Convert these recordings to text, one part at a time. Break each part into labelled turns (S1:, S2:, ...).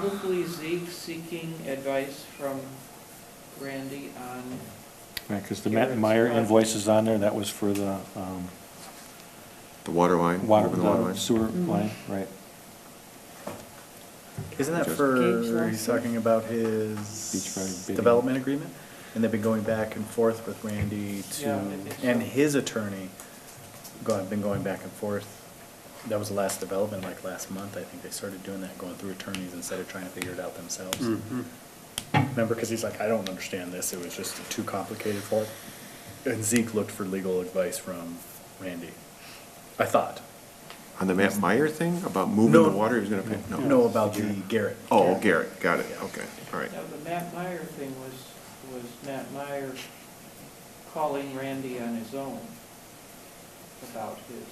S1: Probably Zeke seeking advice from Randy on,
S2: Right, because the Matt Meyer invoice is on there, that was for the um,
S3: The water line?
S2: water,
S3: moving the water
S2: the
S3: line.
S2: sewer
S4: Mm-hmm.
S2: line, right?
S5: Isn't that
S3: Just-
S1: Gabe's last
S5: for, he's
S1: name?
S5: talking about
S2: Beachfront
S5: his
S2: bidding.
S5: development agreement? And they've been going back and forth with Randy
S1: Yeah, I
S5: to,
S1: think so.
S5: and his uh, attorney, gone, been going back and forth. That was the last development, like last month, I think they started doing that, going through attorneys instead of trying to figure it out themselves. Remember, because he's like, I don't understand this, it was just too complicated for it. And Zeke looked for legal advice from Randy, I thought.
S3: On the Matt Meyer thing about moving the
S5: No.
S3: water, he was gonna pay? No.
S5: No, about the Garrett.
S3: Oh, Garrett, got it, okay, all right.
S1: no, the Matt Meyer thing was, was Matt Meyer calling Randy on his own about his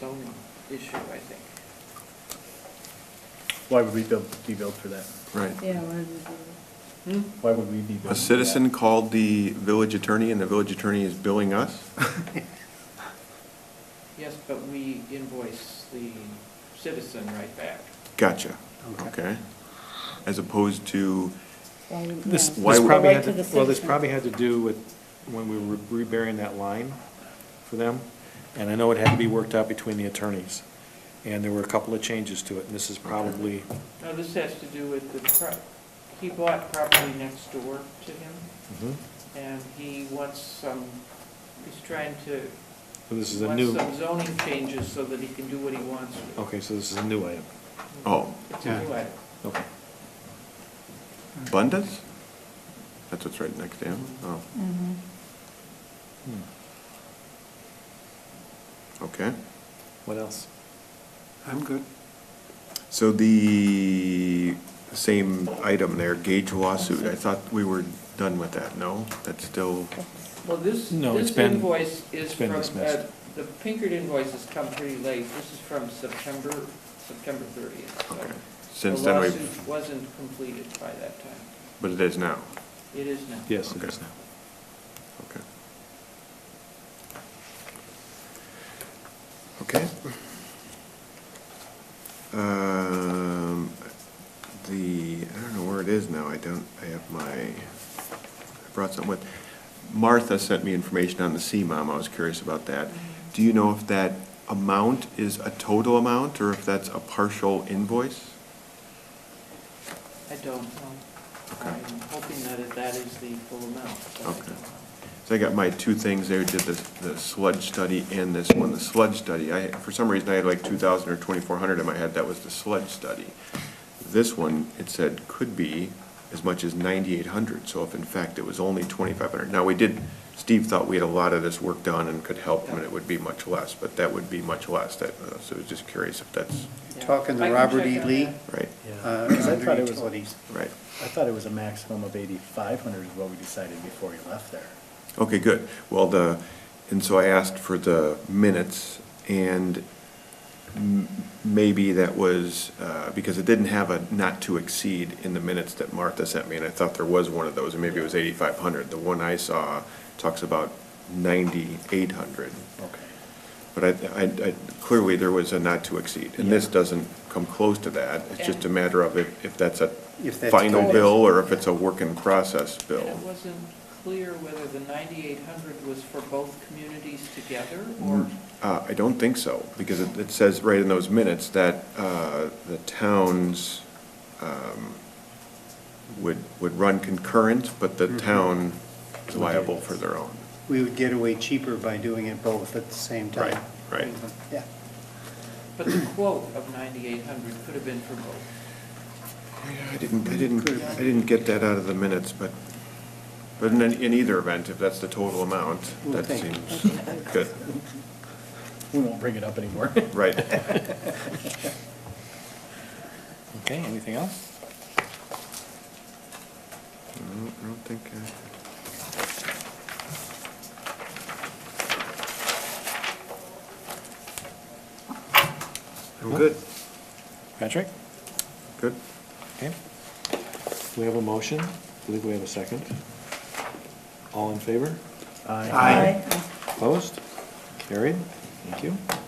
S1: zoning issue, I think.
S5: Why would we build, be billed for that?
S3: Right.
S4: Yeah, why would we?
S1: Hmm?
S5: Why would we be?
S3: A
S5: billed for
S3: citizen
S5: that?
S3: called the village attorney and the village attorney is billing us?
S1: Yes, but we invoice the citizen right back.
S3: Gotcha, okay. As opposed to,
S4: Why would-
S2: This,
S4: yeah.
S3: Why
S2: this
S3: would-
S2: probably
S4: Right
S2: had,
S4: to the
S2: to- well, this
S4: citizen.
S2: probably had to do with when we were reburying that line for them, and I know it had to be worked out between the attorneys, and there were a couple of changes to it, and this is probably,
S1: No, this has to do with the, pro- he bought property next door to him,
S3: Mm-hmm.
S1: and he wants some, he's trying to,
S2: this is a
S1: wants
S2: new,
S1: some zoning changes so that he can do what he wants with it.
S2: okay, so this is a new item,
S3: oh,
S1: It's a new item.
S2: okay.
S3: Bundas? That's what's right next to him? Oh,
S4: Mhm.
S2: Hmm.
S3: okay.
S2: What else?
S3: I'm good. So the same item there, Gage lawsuit, I thought we were done with that, no? That's still,
S1: Well, this,
S2: No, it's
S1: this
S2: been-
S1: invoice is
S2: it's
S1: from,
S2: been dismissed.
S1: uh, the Pinkert invoice has come pretty late. This is from September, September 30th. so
S3: okay. Since then,
S1: The
S3: we,
S1: lawsuit wasn't completed by that time.
S3: but it is now,
S1: It is now.
S2: Yes, it
S3: Okay.
S2: is now.
S3: okay. Okay. Um, the, I don't know where it is now, I don't, I have my, I brought something with, Martha sent me information on the CMOM, I was curious about that. Do you know if that amount is a total amount, or if that's a partial invoice?
S1: I don't know.
S3: Okay.
S1: I'm hoping that it- that is the full amount. but I
S3: Okay.
S1: don't know.
S3: So I got my two things there, did the, the sludge study and this one, the sludge study. I, for some reason, I had like two thousand or twenty-four hundred in my head, that was the sludge study. This one, it said could be as much as ninety-eight hundred, so if in fact it was only twenty-five hundred. Now, we did, Steve thought we had a lot of this work done and could help him, and it would be much less, but that would be much less, that, uh, so I was just curious if that's,
S1: Yeah.
S6: Talking to
S1: I can
S6: Robert
S1: check
S6: E.
S1: on
S6: Lee,
S1: that.
S3: right,
S5: Yeah,
S6: uh,
S5: 'cause I
S6: under
S5: thought it was, I
S6: utilities.
S3: right.
S5: thought it was a maximum of eighty-five hundred is what we decided before we left there.
S3: Okay, good. Well, the, and so I asked for the minutes, and m- maybe that was, uh, because it didn't have a not to exceed in the minutes that Martha sent me, and I thought there was one of those, and maybe it was eighty-five hundred. The one I saw talks about ninety-eight hundred,
S5: Okay.
S3: but I, I, I- clearly there was a not to exceed, and this
S5: Yeah.
S3: doesn't come close to that. It's just a matter of if, if that's a
S6: If that's
S3: final
S6: total.
S3: bill, or if it's a work in process
S1: And
S3: bill.
S1: it wasn't clear whether the 9,800 was for both communities together or
S3: Uh, I don't think so, because it, it says right in those minutes that, uh, the towns, um, would, would run concurrent, but the town is liable for their own.
S6: We would get away cheaper by doing it both at the same time.
S3: Right, right.
S6: Yeah.
S1: But the quote of 9,800 could have been for both.
S3: I didn't, I didn't, I didn't get that out of the minutes, but, but in, in either event, if that's the total amount,
S6: Well,
S3: that
S6: thank you.
S3: seems good,
S5: We won't bring it up anymore.
S3: right.
S2: Okay, anything else?
S3: I don't- I don't think, uh, I'm good,
S2: Patrick?
S3: good.
S2: Okay. We have a motion. I believe we have a second. All in favor?
S5: Aye.
S3: Aye.
S4: Aye.
S2: Opposed? Carried. Thank you.